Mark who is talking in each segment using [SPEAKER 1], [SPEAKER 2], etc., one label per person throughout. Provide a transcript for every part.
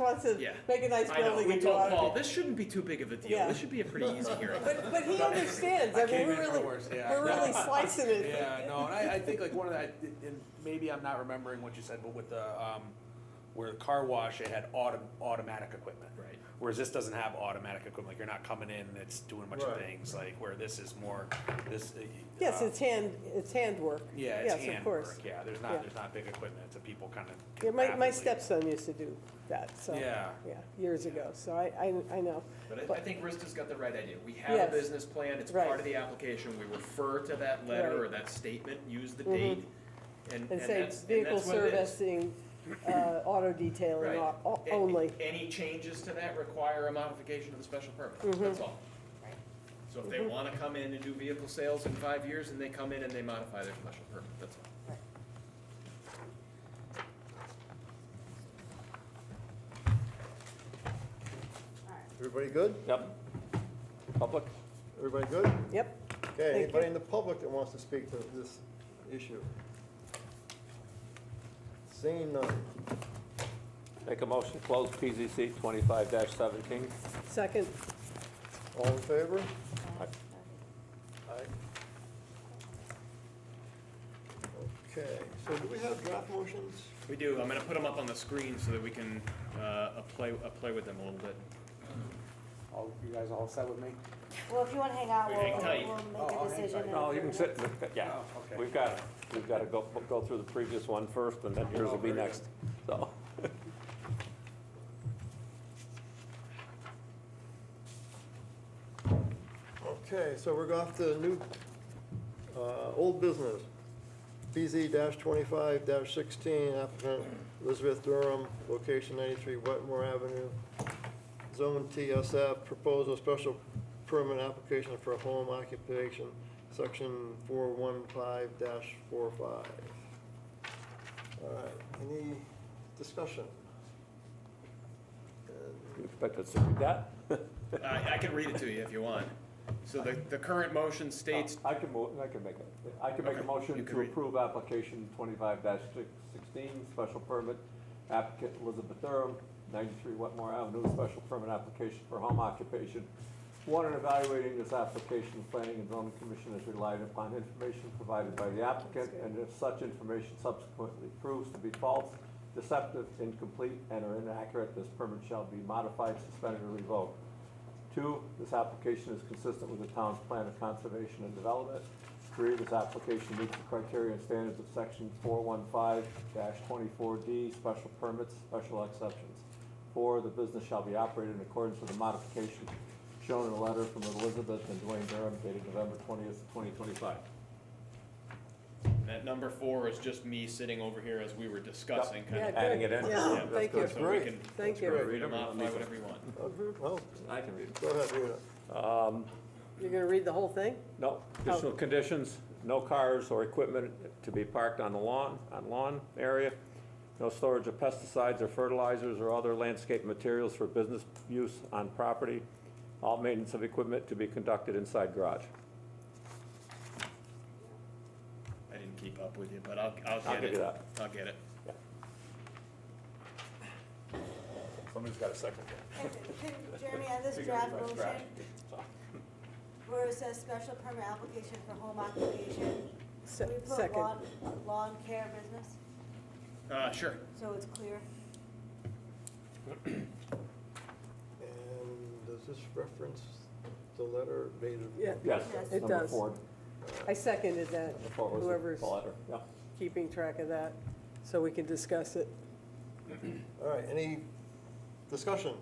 [SPEAKER 1] wants to
[SPEAKER 2] Yeah.
[SPEAKER 1] make a nice
[SPEAKER 2] I know,
[SPEAKER 1] building
[SPEAKER 2] we
[SPEAKER 1] and do
[SPEAKER 2] told
[SPEAKER 1] all
[SPEAKER 2] Paul,
[SPEAKER 1] of it.
[SPEAKER 2] this shouldn't be too big of a deal,
[SPEAKER 1] Yeah.
[SPEAKER 2] this should be a pretty easy hearing.
[SPEAKER 1] But, but he understands, I
[SPEAKER 3] I
[SPEAKER 1] mean,
[SPEAKER 3] came
[SPEAKER 1] we're
[SPEAKER 3] in for
[SPEAKER 1] really,
[SPEAKER 3] worse, yeah.
[SPEAKER 1] we're really slicing it.
[SPEAKER 3] Yeah, no, and I, I think like one of the, I- and maybe I'm not remembering what you said, but with the, um, where the car wash, it had autom- automatic equipment.
[SPEAKER 2] Right.
[SPEAKER 3] Whereas this doesn't have automatic equipment, like you're not coming in and it's doing a bunch of
[SPEAKER 4] Right.
[SPEAKER 3] things, like where this is more, this. uh,
[SPEAKER 1] Yes,
[SPEAKER 3] uh,
[SPEAKER 2] Um,
[SPEAKER 1] it's hand, it's handwork.
[SPEAKER 3] Yeah, it's
[SPEAKER 1] Yes, of course.
[SPEAKER 3] handwork, yeah, there's
[SPEAKER 1] Yeah.
[SPEAKER 3] not, there's not big equipment, it's a people kind of.
[SPEAKER 1] Yeah, my, my stepson used to do that, so.
[SPEAKER 3] Yeah.
[SPEAKER 1] years ago, so I, I, I know.
[SPEAKER 2] But I, I
[SPEAKER 1] But-
[SPEAKER 2] think Rista's got the right idea. We have
[SPEAKER 1] Yes.
[SPEAKER 2] a business plan, it's
[SPEAKER 1] Right.
[SPEAKER 2] part of the application, we refer to that letter
[SPEAKER 1] Right. Mm-hmm.
[SPEAKER 2] or that statement, use the date, and, and
[SPEAKER 1] And say
[SPEAKER 2] that's, and
[SPEAKER 1] vehicle
[SPEAKER 2] that's what it is.
[SPEAKER 1] servicing, uh, auto detailing
[SPEAKER 2] Right.
[SPEAKER 1] o- o-
[SPEAKER 2] A-
[SPEAKER 1] only.
[SPEAKER 2] Any changes to that require a modification of the special permit,
[SPEAKER 1] Mm-hmm.
[SPEAKER 2] that's all. So if they wanna come in and do vehicle sales in five years, and they come in and they modify their special permit, that's all.
[SPEAKER 4] Everybody good?
[SPEAKER 3] Yep. Public?
[SPEAKER 4] Everybody good?
[SPEAKER 1] Yep, Thank
[SPEAKER 4] Okay,
[SPEAKER 1] you.
[SPEAKER 4] anybody in the public that wants to speak to this issue? Seeing none.
[SPEAKER 5] Make a motion to close PZC twenty-five seventeen.
[SPEAKER 1] second,
[SPEAKER 4] All in favor? Aye. Okay, so do we have draft motions?
[SPEAKER 2] We do, I'm gonna put them up on the screen so that we can, uh, play, play with them a little bit.
[SPEAKER 3] All, you guys all set with me?
[SPEAKER 6] Well, if you wanna hang out,
[SPEAKER 2] We
[SPEAKER 6] we'll,
[SPEAKER 2] hang tight.
[SPEAKER 6] we'll
[SPEAKER 3] Oh, I'll
[SPEAKER 6] make a
[SPEAKER 3] hang
[SPEAKER 6] decision.
[SPEAKER 3] tight.
[SPEAKER 6] in a
[SPEAKER 5] No, you
[SPEAKER 6] few
[SPEAKER 5] can sit, yeah,
[SPEAKER 3] Oh, okay.
[SPEAKER 5] we've got, we've got to go, go through the previous one first, and then yours will be
[SPEAKER 3] Oh, very
[SPEAKER 5] next, so.
[SPEAKER 4] Okay, so we're off to new, uh, old business. BZ twenty-five sixteen, applicant Elizabeth Durham, location ninety-three Wetmore Avenue, zone TSF, proposal special permit application for home occupation, section four one five dash four five. All right, any discussion?
[SPEAKER 5] You expect us to do that?
[SPEAKER 2] I, I can read it to you if you want. So the, the current motion states,
[SPEAKER 5] I can move, I can make it. I can make a
[SPEAKER 2] Okay, you
[SPEAKER 5] motion
[SPEAKER 2] can
[SPEAKER 5] to
[SPEAKER 2] read.
[SPEAKER 5] approve application twenty-five sixteen, special permit, applicant Elizabeth Durham, ninety-three Wetmore Avenue, special permit application for home occupation. One, in evaluating this application, the planning and zoning commission has relied upon information provided by the applicant, and if such information subsequently proves to be false, deceptive, incomplete, and or inaccurate, this permit shall be modified, suspended, or revoked. Two, this application is consistent with the town's plan of conservation and development. Three, this application meets the criteria and standards of section four one five twenty-four D, special permits, special exceptions. Four, the business shall be operated in accordance with the modification shown in a letter from Elizabeth and Dwayne Durham dated November twentieth, twenty twenty-five.
[SPEAKER 2] that number four is just me sitting over here as we were discussing, kind
[SPEAKER 1] yeah,
[SPEAKER 2] of.
[SPEAKER 1] good.
[SPEAKER 5] Adding it in.
[SPEAKER 1] Yeah,
[SPEAKER 2] Yeah,
[SPEAKER 1] thank
[SPEAKER 2] So
[SPEAKER 1] you,
[SPEAKER 4] good.
[SPEAKER 2] we
[SPEAKER 4] Great.
[SPEAKER 2] can-
[SPEAKER 1] thank
[SPEAKER 2] we
[SPEAKER 1] you.
[SPEAKER 4] great.
[SPEAKER 2] can
[SPEAKER 5] Read 'em, I'll
[SPEAKER 2] Modify
[SPEAKER 5] leave it.
[SPEAKER 2] whatever you want.
[SPEAKER 4] Well,
[SPEAKER 5] I can read it.
[SPEAKER 4] Oh, go ahead, read it.
[SPEAKER 1] You're gonna read the whole thing?
[SPEAKER 5] No,
[SPEAKER 1] Oh.
[SPEAKER 5] additional conditions, no cars or equipment to be parked on the lawn, on lawn area, no storage of pesticides or fertilizers or other landscape materials for business use on property, all maintenance of equipment to be conducted inside garage.
[SPEAKER 2] I didn't keep up with you, but I'll, I'll get
[SPEAKER 5] give
[SPEAKER 2] it.
[SPEAKER 5] you that.
[SPEAKER 2] I'll get it.
[SPEAKER 3] Somebody's got a second there.
[SPEAKER 6] minutes. Can- can- Jeremy, on this draft motion, where it says special permit application for home occupation,
[SPEAKER 1] Se-
[SPEAKER 6] can we put
[SPEAKER 1] Second,
[SPEAKER 6] lawn, lawn care business,
[SPEAKER 2] Uh, sure.
[SPEAKER 6] so it's clear?
[SPEAKER 4] And does this reference the letter dated?
[SPEAKER 1] yeah,
[SPEAKER 5] Yes.
[SPEAKER 6] Yes.
[SPEAKER 1] It
[SPEAKER 5] Number
[SPEAKER 1] does.
[SPEAKER 5] four.
[SPEAKER 1] I seconded that,
[SPEAKER 5] Number four was the-
[SPEAKER 1] whoever's
[SPEAKER 5] the letter, yeah.
[SPEAKER 1] keeping track of that, so we can discuss it.
[SPEAKER 4] All right, any discussion?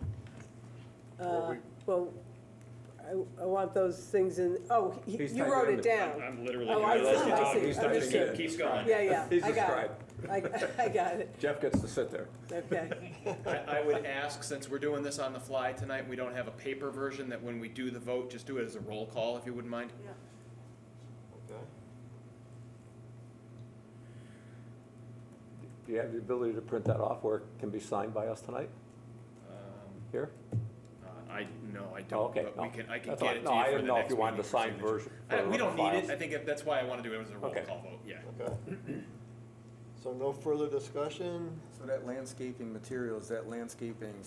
[SPEAKER 1] Uh,
[SPEAKER 4] Well, we-
[SPEAKER 1] Well, I, I want those things in, oh, he-
[SPEAKER 5] He's
[SPEAKER 1] you
[SPEAKER 5] typing
[SPEAKER 1] wrote
[SPEAKER 5] in
[SPEAKER 1] it
[SPEAKER 5] the-
[SPEAKER 1] down.
[SPEAKER 2] I'm literally.
[SPEAKER 1] Oh,
[SPEAKER 2] gonna
[SPEAKER 1] I
[SPEAKER 2] do
[SPEAKER 1] see,
[SPEAKER 2] this.
[SPEAKER 1] I see,
[SPEAKER 5] He's typing it
[SPEAKER 1] understood.
[SPEAKER 5] in.
[SPEAKER 2] Keeps going.
[SPEAKER 1] Yeah, yeah,
[SPEAKER 5] He's
[SPEAKER 1] I
[SPEAKER 5] a
[SPEAKER 1] got it.
[SPEAKER 5] scribe.
[SPEAKER 1] I, I got it,
[SPEAKER 5] Jeff gets to sit there.
[SPEAKER 1] okay.
[SPEAKER 2] I, I would ask, since we're doing this on the fly tonight, we don't have a paper version, that when we do the vote, just do it as a roll call, if you wouldn't mind.
[SPEAKER 6] Yeah.
[SPEAKER 4] Okay.
[SPEAKER 5] Do you have the ability to print that off where it can be signed by us tonight,
[SPEAKER 2] Um,
[SPEAKER 5] here?
[SPEAKER 2] uh, I, no, I
[SPEAKER 5] Oh,
[SPEAKER 2] don't,
[SPEAKER 5] okay,
[SPEAKER 2] but
[SPEAKER 5] no.
[SPEAKER 2] we can, I can
[SPEAKER 5] That's
[SPEAKER 2] get it
[SPEAKER 5] all right.
[SPEAKER 2] to
[SPEAKER 5] No, I
[SPEAKER 2] you for
[SPEAKER 5] didn't
[SPEAKER 2] the
[SPEAKER 5] know if
[SPEAKER 2] next
[SPEAKER 5] you wanted
[SPEAKER 2] meeting
[SPEAKER 5] the
[SPEAKER 2] for
[SPEAKER 5] signed
[SPEAKER 2] signature.
[SPEAKER 5] version
[SPEAKER 2] I-
[SPEAKER 5] for
[SPEAKER 2] We don't need it,
[SPEAKER 5] files.
[SPEAKER 2] I think that- that's why I wanna do it as a roll
[SPEAKER 5] Okay.
[SPEAKER 2] call vote, yeah.
[SPEAKER 4] Okay. So no further discussion?
[SPEAKER 7] So that landscaping materials, that landscaping